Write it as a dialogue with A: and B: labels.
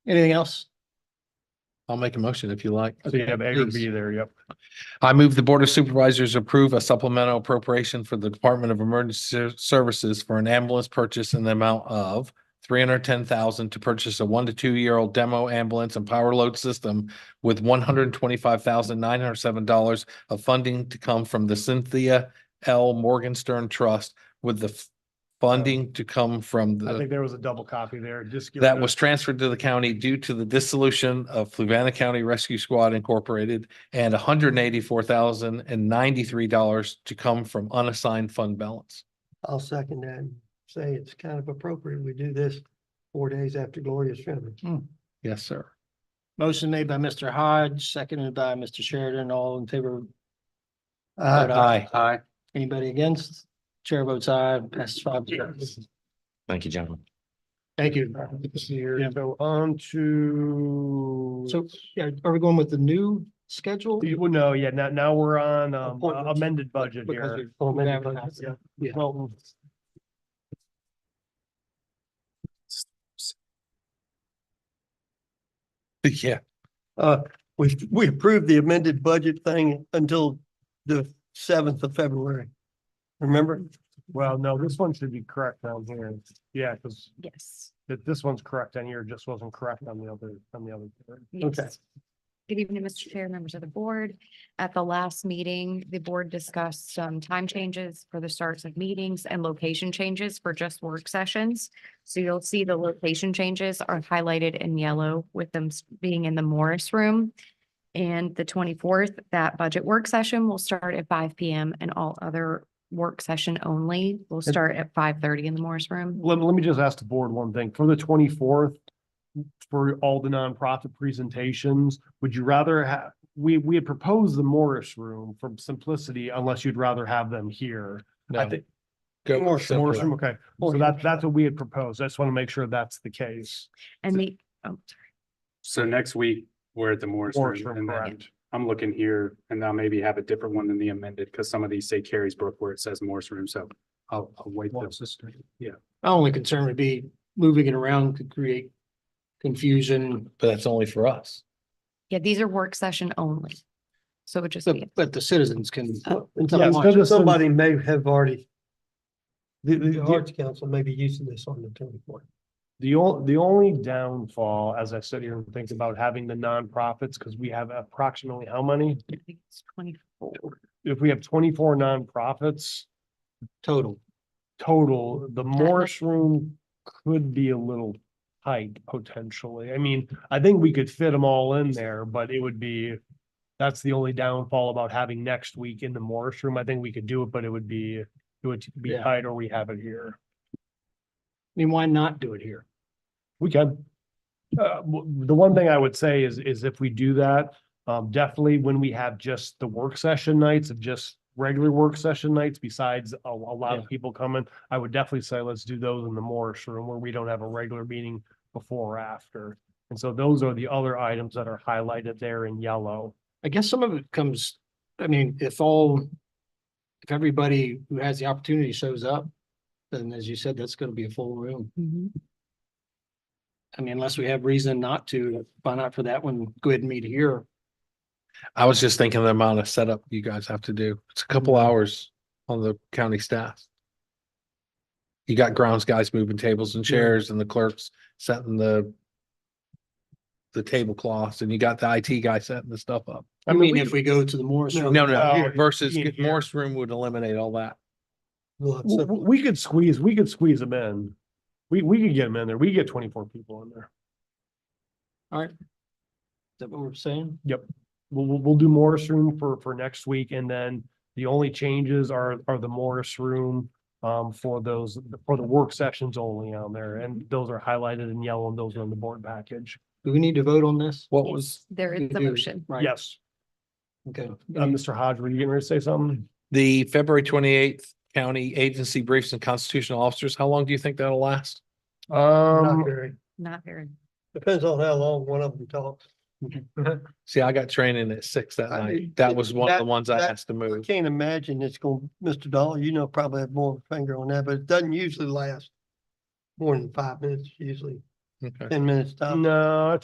A: Anything else?
B: I'll make a motion if you like.
C: So you have A or B there, yep.
B: I move the Board of Supervisors approve a supplemental appropriation for the Department of Emergency Ser- Services for an ambulance purchase in the amount of three hundred ten thousand to purchase a one to two year old demo ambulance and power load system with one hundred twenty-five thousand nine hundred seven dollars of funding to come from the Cynthia L. Morgenstern Trust with the f- funding to come from
C: I
B: the
C: think there was a double copy there, just. give
B: that
C: the-
B: was transferred to the county due to the dissolution of Fluvanna County Rescue Squad Incorporated and hundred and eighty-four thousand and ninety-three dollars to come from unassigned fund balance.
D: I'll second that and say it's kind of appropriate. We do this four days after Gloria's funeral.
B: Yes, sir.
A: Motion made by Mr. Hodge, seconded by Mr. Sheridan, all in favor.
D: Uh,
A: vote
B: Aye.
A: Aye. Anybody against? Chair votes aye, passes five to zero.
E: Thank you, gentlemen.
C: Thank you. Good to see you. So on to.
A: So yeah, are we going with the new schedule?
C: You- Well, no, yeah, now, now we're on um,
D: Appointments.
C: amended budget
A: Because
C: here.
A: we've- we've advertised.
C: Yeah.
D: Yeah.
C: Well,
B: Yeah.
D: Uh, we, we approved the amended budget thing until the seventh of February. Remember?
C: well, no, this one should be correct down here. Yeah, because
F: Yes,
C: this one's correct on here, just wasn't correct on the other, on the other.
F: yes. Good evening, Mr. Chair, members of the board. At the last meeting, the board discussed some time changes for the starts of meetings and location changes for just work sessions. So you'll see the location changes are highlighted in yellow with them s- being in the Morris Room. And the twenty-fourth, that budget work session will start at five P M and all other work session only will start at five thirty in the Morris Room.
C: Let, let me just ask the board one thing. For the twenty-fourth, for all the nonprofit presentations, would you rather have, we, we had proposed the Morris Room for simplicity, unless you'd rather have them here. I
B: No.
C: think,
B: Go
D: More
B: simple.
C: Morris Room, okay. So
D: Or-
C: that, that's what we had proposed. I just want to make sure that's the case.
F: And the, oh,
G: So next week, we're at the Morris
C: Morris
G: Room,
C: Room,
G: and then
C: correct.
G: I'm looking here, and I'll maybe have a different one than the amended, because some of these say Carrie's Brook where it says Morris Room, so I'll, I'll wait. till-
A: My only concern would be moving it around could create confusion,
B: But that's only for us.
F: yeah, these are work session only. So it would just
A: but,
F: be.
A: but the citizens can.
C: Yeah, so this is-
D: Somebody may have already,
C: The, the,
D: the
C: the-
D: Arts Council may be using this on the twenty-fourth.
C: The only, the only downfall, as I sit here and think about having the nonprofits, because we have approximately how many?
F: I think it's twenty-four.
C: If we have twenty-four nonprofits
A: Total.
C: total, the Morris Room could be a little tight potentially. I mean, I think we could fit them all in there, but it would be, that's the only downfall about having next week in the Morris Room. I think we could do it, but it would be, it would be
A: Yeah.
C: tight or we have it here.
A: I mean, why not do it here?
C: We can. Uh, w- the one thing I would say is, is if we do that, um, definitely when we have just the work session nights of just regular work session nights besides a, a lot of people coming, I would definitely say let's do those in the Morris room where we don't have a regular meeting before or after. And so those are the other items that are highlighted there in yellow.
A: I guess some of it comes, I mean, if all, if everybody who has the opportunity shows up, then as you said, that's gonna be a full room.
F: Mm-hmm.
A: I mean, unless we have reason not to, why not for that one, go ahead and meet here.
B: I was just thinking the amount of setup you guys have to do. It's a couple
D: Mm-hmm.
B: hours on the county staff. You got grounds guys moving tables and chairs and the clerks setting the the tablecloths and you got the IT guy setting the stuff up.
A: I mean, if we go to the Morris
B: No,
A: Room.
B: no,
C: Oh,
B: no. versus
C: yeah, yeah.
B: Morris Room would eliminate all that.
C: W- w- We could squeeze, we could squeeze them in. We, we could get them in there. We could get twenty-four people in there.
A: All right. Is that what we're saying?
C: we'll, we'll, we'll do Morris Room for, for next week, and then the only changes are, are the Morris Room um, for those, for the work sessions only on there, and those are highlighted in yellow, and those are in the board package.
A: Do we need to vote on this?
B: What was
F: There is the
A: Do-
F: motion.
A: Right,
C: Yes,
A: okay.
D: Um,
C: Uh, Mr. Hodge, were you getting ready to say something?
B: the February twenty eighth county agency briefs and constitutional officers? How long do you think that'll last?
D: Not
C: Um,
D: very.
F: Not very.
D: Depends on how long one of them talks.
B: See, I got training at six that
D: I-
B: night. That was one of the
D: that-
B: ones I
D: that-
B: asked to
D: I
B: move.
D: can't imagine it's going, Mr. Dollar, you know, probably have more finger on that, but it doesn't usually last more than five minutes usually.
H: Okay.
A: ten minutes stop.
C: No,